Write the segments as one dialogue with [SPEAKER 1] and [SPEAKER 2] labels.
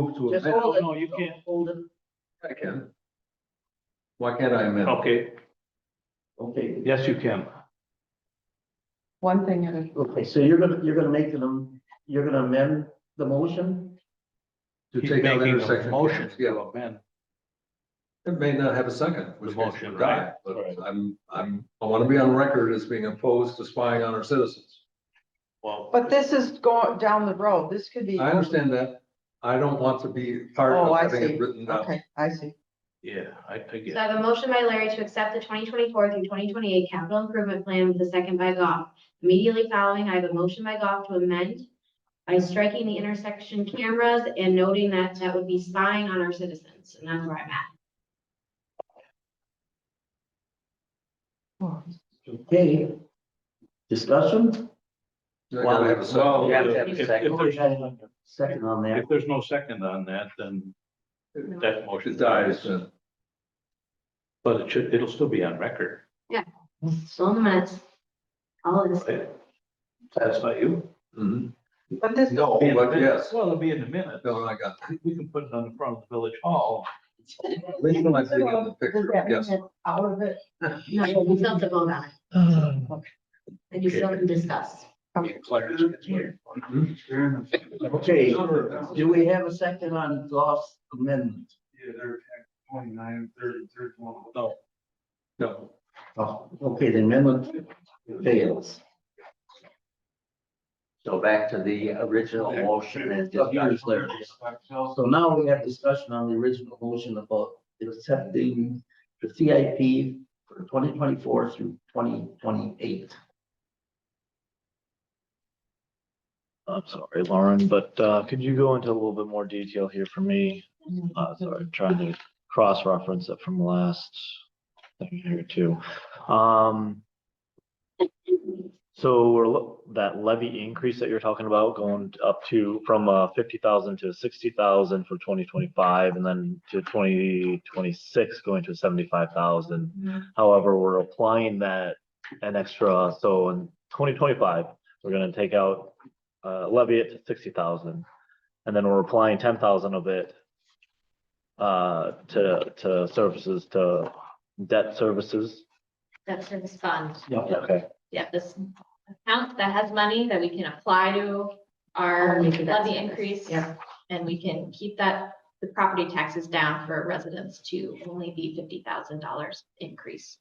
[SPEAKER 1] move to
[SPEAKER 2] Just
[SPEAKER 1] amend.
[SPEAKER 2] hold it.
[SPEAKER 3] No, you can't.
[SPEAKER 2] Hold it.
[SPEAKER 1] I can. Why can't I amend?
[SPEAKER 3] Okay,
[SPEAKER 2] Okay,
[SPEAKER 3] yes, you can.
[SPEAKER 4] One thing at a,
[SPEAKER 2] okay, so you're gonna, you're gonna make them, you're gonna amend the motion?
[SPEAKER 1] To
[SPEAKER 3] He's
[SPEAKER 1] take out
[SPEAKER 3] making a
[SPEAKER 1] intersection.
[SPEAKER 3] Motion
[SPEAKER 1] Yeah,
[SPEAKER 3] to amend.
[SPEAKER 1] it may not have a second, which
[SPEAKER 3] The
[SPEAKER 1] means
[SPEAKER 3] motion,
[SPEAKER 1] it died,
[SPEAKER 3] right,
[SPEAKER 1] but
[SPEAKER 3] right.
[SPEAKER 1] I'm, I'm, I want to be on record as being opposed to spying on our citizens.
[SPEAKER 3] Well.
[SPEAKER 4] but this is going down the road. This could be.
[SPEAKER 1] I understand that. I don't want to be part
[SPEAKER 4] Oh,
[SPEAKER 1] of
[SPEAKER 4] I
[SPEAKER 1] having
[SPEAKER 4] see.
[SPEAKER 1] it written down.
[SPEAKER 4] Okay, I see.
[SPEAKER 3] Yeah, I, I get.
[SPEAKER 5] So I have a motion by Larry to accept the twenty twenty-four through twenty twenty-eight capital improvement plan with a second by Goff. Immediately following, I have a motion by Goff to amend by striking the intersection cameras and noting that that would be spying on our citizens, and that's where I'm at.
[SPEAKER 2] Okay. Discussion?
[SPEAKER 1] I gotta have a second.
[SPEAKER 3] Well, if- if there's-
[SPEAKER 2] Second on that.
[SPEAKER 3] If there's no second on that, then that motion
[SPEAKER 1] It dies,
[SPEAKER 3] dies,
[SPEAKER 1] then.
[SPEAKER 3] but it should, it'll still be on record.
[SPEAKER 5] So in the minutes, all of this.
[SPEAKER 3] right? Satisfy you?
[SPEAKER 1] Mhm.
[SPEAKER 4] But this,
[SPEAKER 1] No,
[SPEAKER 3] Be in the
[SPEAKER 1] but
[SPEAKER 3] minutes.
[SPEAKER 1] yes.
[SPEAKER 3] Well, it'll be in the minute.
[SPEAKER 1] No, I got,
[SPEAKER 3] We- We can put it on the front of the village hall.
[SPEAKER 1] at least when I see it in the picture, yes.
[SPEAKER 4] out of it.
[SPEAKER 5] No, you still have to vote on it,
[SPEAKER 4] Okay.
[SPEAKER 5] and you still can discuss.
[SPEAKER 3] Clarence gets here.
[SPEAKER 2] Okay, do we have a second on Goff's amendment?
[SPEAKER 6] Yeah, they're twenty-nine, thirty, thirty-one.
[SPEAKER 3] No,
[SPEAKER 1] No,
[SPEAKER 2] Oh, okay, the amendment fails.
[SPEAKER 7] So back to the original motion and
[SPEAKER 2] Up yours,
[SPEAKER 7] discussion.
[SPEAKER 2] Larry. So now we have discussion on the original motion about accepting the CIP for twenty twenty-four through twenty twenty-eight.
[SPEAKER 8] I'm sorry, Lauren, but uh, could you go into a little bit more detail here for me? Uh, Sorry, trying to cross-reference it from last thing here too. Um, So we're, lo- that levy increase that you're talking about going up to, from uh, 50,000 to 60,000 for 2025 and then to 2026 going to 75,000. However, we're applying that an extra, so in 2025, we're going to take out uh, levy it to sixty thousand, and then we're applying ten thousand of it uh, to, to services, to debt services.
[SPEAKER 5] That's in this fund.
[SPEAKER 2] Yeah.
[SPEAKER 8] Okay.
[SPEAKER 9] Yeah, this account that has money that we can apply to our
[SPEAKER 5] Only to that
[SPEAKER 9] levy
[SPEAKER 5] service,
[SPEAKER 9] increase.
[SPEAKER 5] yeah.
[SPEAKER 9] And we can keep that, the property taxes down for residents to only be fifty thousand dollars increase.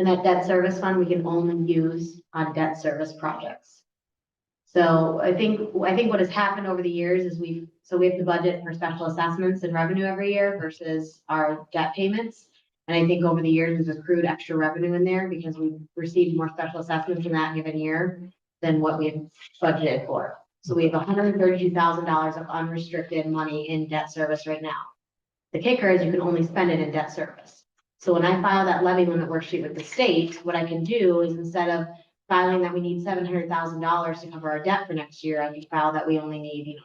[SPEAKER 5] And that debt service fund, we can only use on debt service projects. So I think, I think what has happened over the years is we've, so we have the budget for special assessments and revenue every year versus our debt payments. And I think over the years, we've accrued extra revenue in there because we've received more special assessments in that given year than what we've budgeted for. So we have hundred and thirty-two thousand dollars of unrestricted money in debt service right now. The kicker is you can only spend it in debt service. So when I file that levy limit worksheet with the state, what I can do is instead of filing that we need seven hundred thousand dollars to cover our debt for next year, I can file that we only need, you know,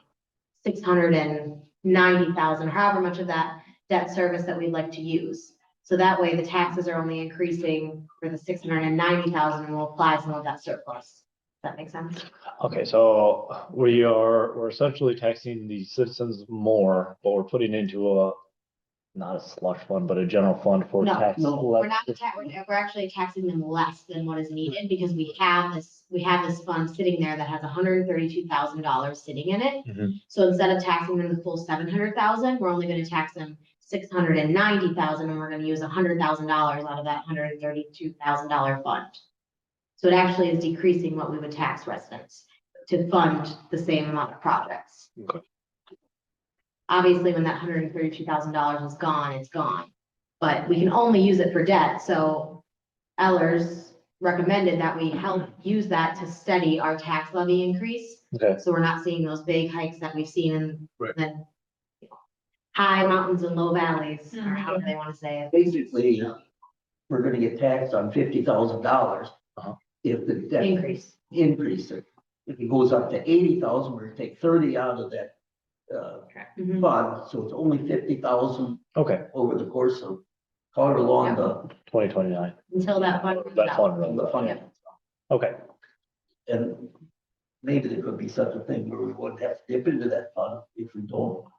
[SPEAKER 5] six hundred and ninety thousand, however much of that debt service that we'd like to use. So that way the taxes are only increasing for the six hundred and ninety thousand and we'll apply some of that surplus. Does that make sense?
[SPEAKER 8] Okay, so we are, we're essentially taxing the citizens more, but we're putting into a, not a slush fund, but a general fund for
[SPEAKER 5] No,
[SPEAKER 8] tax.
[SPEAKER 2] no,
[SPEAKER 5] We're not, ta- we're we're actually taxing them less than what is needed because we have this, we have this fund sitting there that has hundred and thirty-two thousand dollars sitting in it.
[SPEAKER 8] Mhm.
[SPEAKER 5] So instead of taxing them the full seven hundred thousand, we're only gonna tax them six hundred and ninety thousand and we're gonna use hundred thousand dollars out of that hundred and thirty-two thousand dollar fund. So it actually is decreasing what we would tax residents to fund the same amount of projects.
[SPEAKER 8] Okay.
[SPEAKER 5] Obviously, when that hundred and thirty-two thousand dollars is gone, it's gone but we can only use it for debt, so Ellers recommended that we help use that to steady our tax levy increase.
[SPEAKER 8] Okay.
[SPEAKER 5] So we're not seeing those big hikes that we've seen in
[SPEAKER 1] Right.
[SPEAKER 5] the you know, high mountains and low valleys, or
[SPEAKER 9] Mhm.
[SPEAKER 5] however they wanna say it.
[SPEAKER 2] Basically, we're gonna get taxed on fifty thousand dollars
[SPEAKER 8] Uh-huh.
[SPEAKER 2] if the debt
[SPEAKER 5] Increase.
[SPEAKER 2] increase it. If it goes up to eighty thousand, we're gonna take thirty out of that uh
[SPEAKER 5] Mhm.
[SPEAKER 2] fund, so it's only fifty thousand
[SPEAKER 8] Okay,
[SPEAKER 2] over the course of however long the
[SPEAKER 8] twenty twenty-nine.
[SPEAKER 5] Until that fund. comes
[SPEAKER 8] That
[SPEAKER 5] out.
[SPEAKER 8] fund
[SPEAKER 2] the
[SPEAKER 8] runs out.
[SPEAKER 2] fund.
[SPEAKER 8] Okay,
[SPEAKER 2] And maybe there could be such a thing where we wouldn't have to dip into that fund if we don't